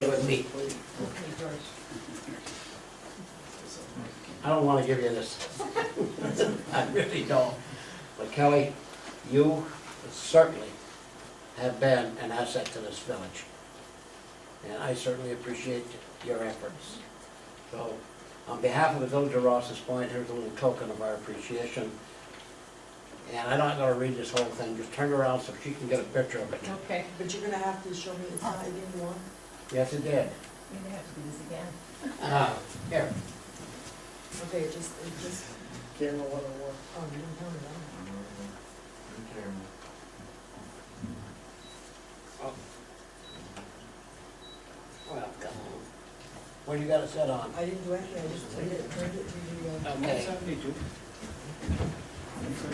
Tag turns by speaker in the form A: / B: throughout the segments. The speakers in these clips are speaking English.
A: feet. I don't wanna give you this. I really don't. But Kelly, you certainly have been an asset to this village. And I certainly appreciate your efforts. So, on behalf of the village of Rouse's Point, here's a little token of our appreciation. And I'm not gonna read this whole thing, just turn around so she can get a picture of it.
B: Okay.
C: But you're gonna have to show me it's not even one.
A: Yes, it did.
B: You're gonna have to do this again.
A: Ah, Here,
C: Okay, it just, it just,
D: Camera one oh one.
C: oh, you didn't tell me that.
A: well, come on. What do you got it set on?
C: I didn't do anything, I just turned it, turned it to the, uh,
A: Okay.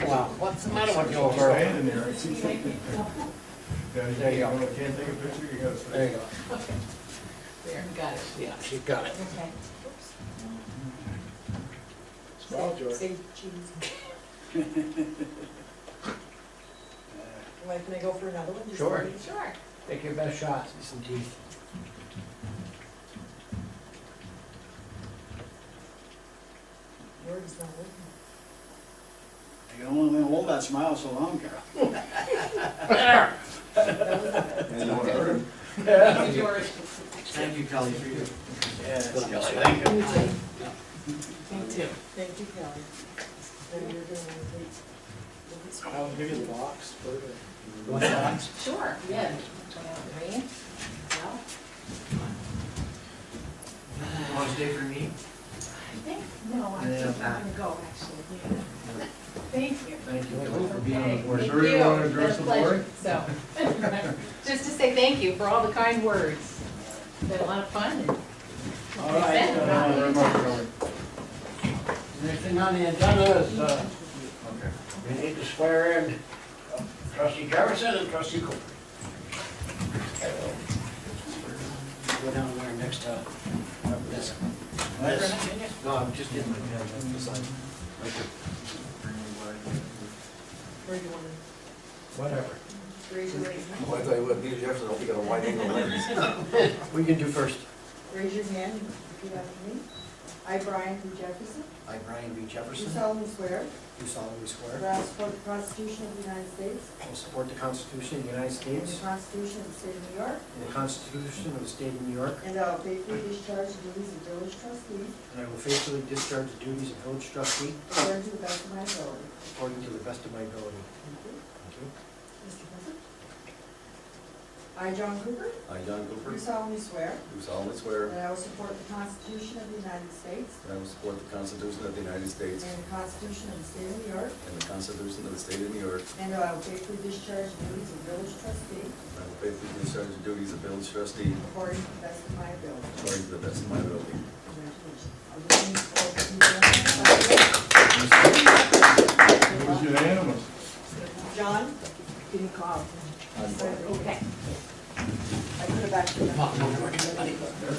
A: Wow, what's the matter with you over there?
E: Stand in there, I see something. Yeah, you
A: There you go.
E: can't- can't take a picture, you gotta
A: There you
E: stand.
A: go.
B: There, got it.
A: Yeah, she got it.
B: Okay.
D: Smile, George.
C: say cheese. Like, can I go for another one? Just
A: Sure.
C: leave it?
B: Sure.
A: Take your best shot. Some teeth.
C: Word is not working.
F: You don't want to hold that smile so long, Carol.
E: And you wanna hurt him?
B: Yours.
A: Thank you, Kelly, for your.
F: Yes,
A: Kelly,
F: thank you.
B: Me too.
C: Thank you, Kelly. Then you're gonna take, look at
D: How big is the box? Perfect.
A: What's that?
B: Sure, yeah. Turn out the rain. Well,
G: Last day for me,
B: I think, no, I'm
G: Yeah.
B: I'm gonna go, actually. Yeah. Thank you.
G: thank you Kelly, for being on the board.
B: Okay,
E: Sure you
B: thank
E: wanna address
B: Been a
E: the board?
B: pleasure. So, just to say thank you for all the kind words. Been a lot of fun. and-
F: All right, uh, very much, Howard.
A: Next thing on the agenda is, uh,
E: Okay.
A: we need to swear in trustee Jefferson and trustee Cooper. Go down there next time. Yes. Yes. No, I'm just getting my pen, that's beside.
C: where do you wanna,
A: Whatever.
C: raise your right hand?
E: Well, I tell you what, Peter Jefferson, I hope you got a wide angle lens.
A: We can do first.
C: Raise your hand and repeat after me. I, Brian B. Jefferson,
G: I, Brian B.
C: do
G: Jefferson,
C: solemnly swear
G: do solemnly
C: that
G: swear,
C: I will support the Constitution of the United States
G: I will support the Constitution of the United
C: and the
G: States
C: Constitution of the State of New York,
G: and the Constitution of the State of New York,
C: and I will faithfully discharge the duties of village trustee
G: and I will faithfully discharge the duties of village trustee
C: according to the best of my ability.
G: according to the best of my ability.
C: Thank you.
G: Thank you.
C: Mr. President? I, John Cooper,
E: I, John Cooper,
C: do solemnly swear
E: do solemnly swear
C: that I will support the Constitution of the United States
E: that I will support the Constitution of the United States
C: and the Constitution of the State of New York,
E: and the Constitution of the State of New York,
C: and that I will faithfully discharge the duties of village trustee
E: and I will faithfully discharge the duties of village trustee
C: according to the best of my ability.
E: according to the best of my ability.
C: Congratulations. I'll just need all of you to-
F: It
E: It
F: was unanimous.
C: John? Didn't call.
B: Okay.
C: I could have actually.
A: Oh, no, no, no.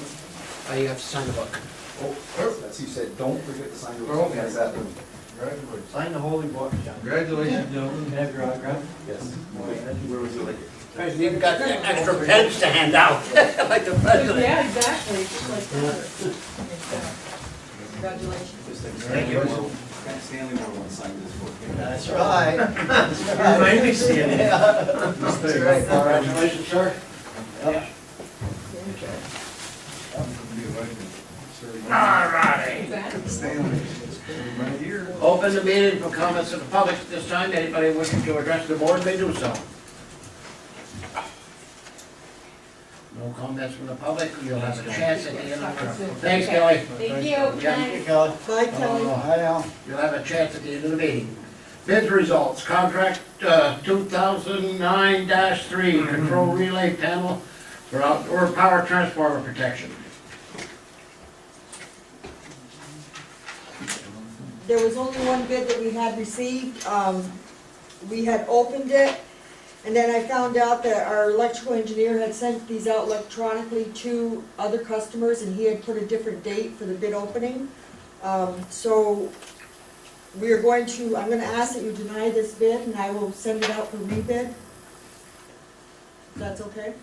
A: Oh, you have to sign the book.
E: Oh, that's, you said, don't forget to sign your.
G: Oh, okay.
E: Yes, that one.
G: Congratulations. Sign the holy book, John.
E: Congratulations.
G: gentlemen. Can I have your autograph?
E: Yes. Where would you like it?
A: You've got extra pens to hand out, like the president.
B: Yeah, exactly, just like that.
C: Congratulations.
G: Thank you.
E: Stanley Moore wants to sign this book.
G: That's right. You're mainly standing.
E: That's
G: right.
A: Congratulations, sir.
E: Stanley, right here.
A: Open the meeting for comments of the public at this time. Anybody wishing to address the board may do so. No comments from the public. You'll have a chance at the end of the meeting. Thanks, Kelly.
B: Thank you.
A: Yeah.
G: Kelly.
C: Bye,
A: Kelly.
C: Kelly.
G: Hi, Al.
A: You'll have a chance at the end of the meeting. Bid results, contract uh, 2009-3, control relay panel for outdoor power transformer protection.
C: There was only one bid that we had received. Um, we had opened it, and then I found out that our electrical engineer had sent these out electronically to other customers, and he had put a different date for the bid opening. Um, so we are going to, I'm gonna ask that you deny this bid, and I will send it out for rebid. That's okay?